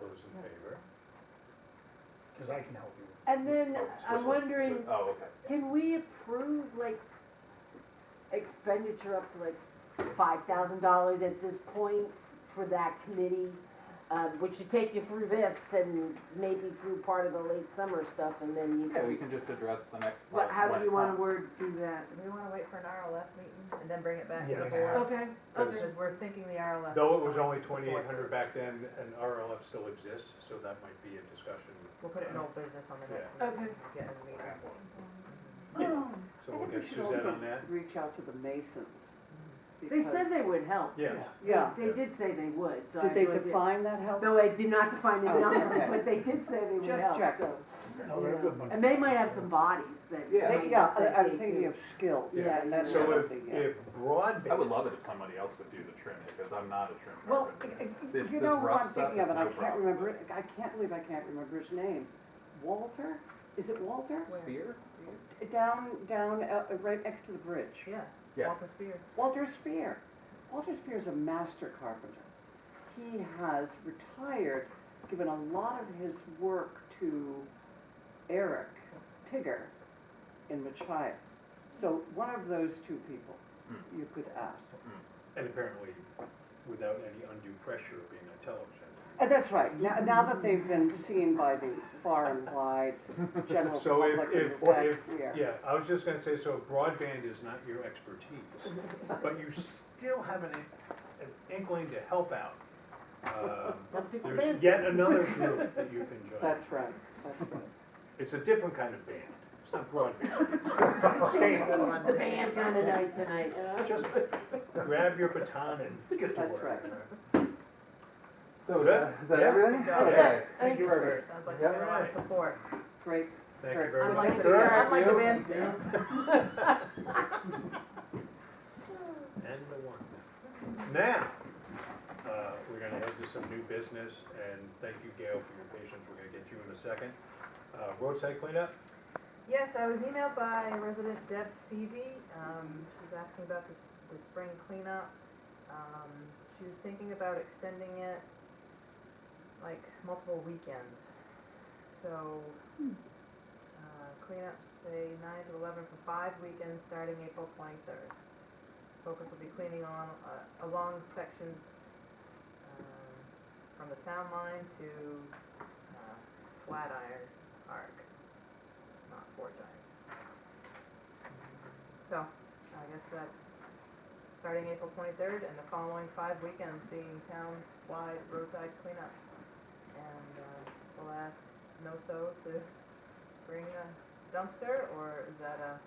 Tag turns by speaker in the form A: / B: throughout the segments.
A: those in favor?
B: Because I can help you. with
C: And then
A: Oh, switch
C: I'm
A: it.
C: wondering,
A: Oh, okay.
C: can we approve like expenditure up to like five thousand dollars at this point for that committee? Um, which should take you through this and maybe through part of the late summer stuff and then you
D: Yeah, we
C: can,
D: can just address the next
C: what,
D: part.
C: how
D: when
C: do
D: it
C: you wanna
D: comes.
C: word do that?
E: Do we wanna wait for an RLF meeting and then bring it back to
B: Yeah.
E: the board?
C: Okay, okay.
E: Because we're thinking the RLF. is
A: Though it was
E: going
A: only
E: to support
A: twenty-eight hundred
E: this.
A: back then, and RLF still exists, so that might be a discussion. Um,
E: We'll put it in old business on the next
C: Yeah.
E: meeting.
C: Okay.
E: Get in the meeting.
A: Yeah. So
F: I
A: we'll
F: think Oh. we
A: get
F: should
A: Suzanne
F: also
A: on that?
F: reach out to the Masons.
C: They said they
F: because-
C: would help.
A: Yeah.
F: Yeah,
C: They did say they would, so I.
F: did they
C: was-
F: define that help?
C: No, I did not define the
F: Oh,
C: number,
F: okay.
C: but they did say they would
F: Just
C: help,
F: checking.
C: so.
B: that.
A: Oh,
B: No, they're a good bunch.
C: And they might have some bodies that.
D: Yeah.
F: They-
C: might
F: Yeah, I-
C: that they
F: I'm thinking
C: do.
F: of skills.
C: Yeah,
F: and that's
A: So
F: what I'm
A: if,
F: thinking of.
A: if broadband.
D: I would love it if somebody else would do the trimming, because I'm not a trim
F: Well,
D: person.
C: e-,
F: I- I-
D: This-
F: you
D: this
F: know who
D: rough
F: I'm
D: stuff
F: thinking of,
D: is
F: and I
D: no
F: can't
D: problem.
F: remember, it- I can't believe I can't remember his name. Walter? Is it Walter?
C: e-,
E: Where?
D: Spear?
F: Down, down, uh, right next to the bridge.
E: Yeah,
D: Yeah.
E: Walter Spear.
F: Walter Spear. Walter Spear is a master carpenter. He has retired, given a lot of his work to Eric Tigger in Machias. So one of those two people
D: Hmm.
F: you could ask.
A: And apparently, without any undue pressure of being on television.
F: Uh, that's right, now, now that they've been seen by the far and wide general
A: So if,
F: public
A: if,
F: with that
A: if,
F: career.
A: yeah, I was just gonna say, so if broadband is not your expertise, but you still have an, an inkling to help out. um, There's yet another group that you can join.
F: That's right, that's right.
A: It's a different kind of band. It's not broadband.
C: Oh, The band kind of night tonight, uh,
A: Just grab your baton and get to
F: That's
A: work.
F: right.
D: So uh, is
A: Good.
D: that, is that
A: Yeah.
D: everything?
E: Yeah.
D: Okay.
C: Thank you,
A: Robert.
E: Sounds like we
D: Yeah.
E: got a lot of support.
F: Great,
A: Thank you very much.
E: Unlike the,
A: Sure.
E: unlike the bandstand.
A: And the one. Now, uh, we're gonna head to some new business, and thank you, Gail, for your patience. We're gonna get you in a second. Uh, Roadside cleanup?
E: Yes, I was emailed by resident Deb Seavey. Um, she was asking about this, the spring cleanup. Um, she was thinking about extending it like multiple weekends. So, uh, cleanups say nine to eleven for five weekends starting April twenty-third. Focus will be cleaning on, uh, along sections, um, from the town line to, uh, Flatiron Arc not four times. So, I guess that's starting April twenty-third and the following five weekends being town-wide roadside cleanup. And, uh, we'll ask NOSO to bring a dumpster, or is that a,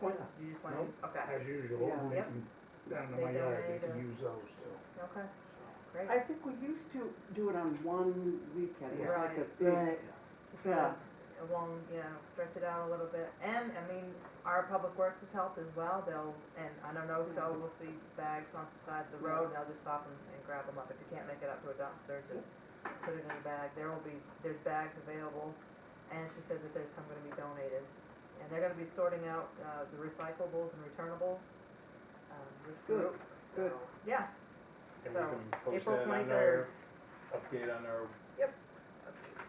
B: Well,
E: you just wanna
B: Nope.
E: use, okay,
B: As usual,
F: Yeah.
B: they
E: Yep.
B: can, down in
E: They
B: my yard, they
E: donate,
B: can
E: uh,
B: use those too.
E: okay, great.
F: I think we used to do it on one weekend, it was like a
E: Right.
F: big,
C: right.
F: yeah,
E: along, you know, stretch it out a little bit. And, I mean, our public works has helped as well, they'll, and I don't know, so we'll see bags on the side of the road, and they'll just stop and, and grab them up. If you can't make it up to a dumpster, just put it in a bag. There will be, there's bags available, and she says that there's some gonna be donated. And they're gonna be sorting out, uh, the recyclables and returnables, um, this
F: Good,
E: group, so,
F: good.
E: yeah,
A: And we
E: So,
A: can post
E: April
A: that on
E: 23rd.
A: our, update on our
E: Yep.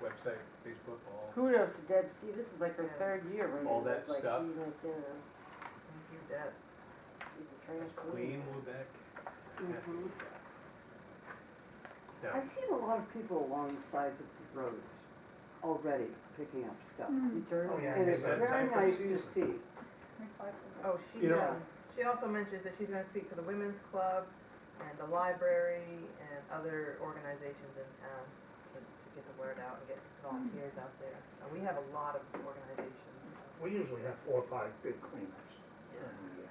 A: website, Facebook, all.
C: Kudos to Deb, see, this is like her
E: Yes.
C: third year running.
A: All that
C: this, like,
A: stuff.
C: She's like, you know,
E: thank you, Deb.
C: she's a trash
A: Clean
C: queen.
A: Lubec.
F: Mhm.
A: Yeah.
F: I've seen a lot of people along the sides of the roads already picking up stuff.
C: Return.
B: Oh, yeah.
F: And it's
A: Is that
F: very
A: type of
F: nice to
A: season?
F: see.
E: Oh, she,
A: You know-
E: um, she also mentions that she's gonna speak to the women's club and the library and other organizations in town to, to get the word out and get volunteers out there. So we have a lot of organizations.
B: We usually have four or five big cleanups. during the year.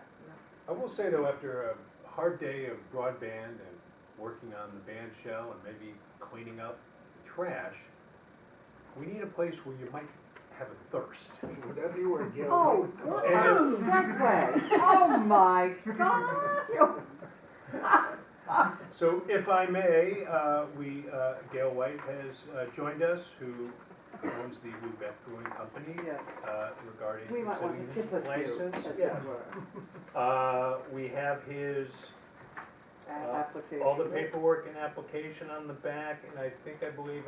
A: I will say though, after a hard day of broadband and working on the band shell and maybe cleaning up trash, we need a place where you might have a thirst.
B: Would that be where Gail?
F: Oh,
B: would come?
F: what a
A: And-
F: segue! Oh, my God!
A: So if I may, uh, we, uh, Gail White has uh, joined us, who owns the Lubec Brewing Company,
F: Yes,
A: uh, regarding.
F: we might want
A: considering
F: to tip a few,
A: license.
F: as it
B: yeah.
F: were,
A: Uh, we have his
F: application.
A: Uh, All the paperwork and application on the back, and I think, I believe